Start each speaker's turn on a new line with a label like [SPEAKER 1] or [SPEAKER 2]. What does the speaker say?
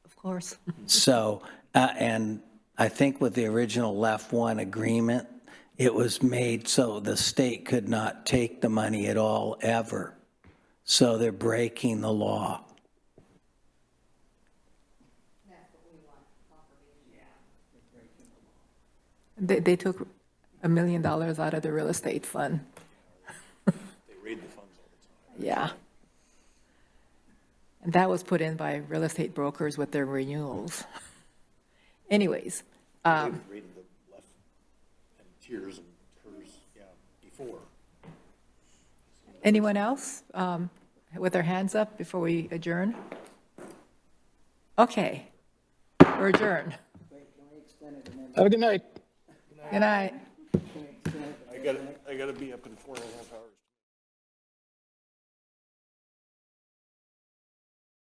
[SPEAKER 1] course.
[SPEAKER 2] So, uh, and I think with the original left one agreement, it was made so the state could not take the money at all, ever. So they're breaking the law.
[SPEAKER 3] They, they took a million dollars out of the real estate fund. They raid the funds all the time. Yeah. And that was put in by real estate brokers with their renewals. Anyways, um,
[SPEAKER 4] They've raided the left and tiers and hers, yeah, before.
[SPEAKER 3] anyone else um, with their hands up before we adjourn? Okay, we're adjourned.
[SPEAKER 5] Have a good night.
[SPEAKER 3] Good night.
[SPEAKER 4] I gotta, I gotta be up in four and a half hours.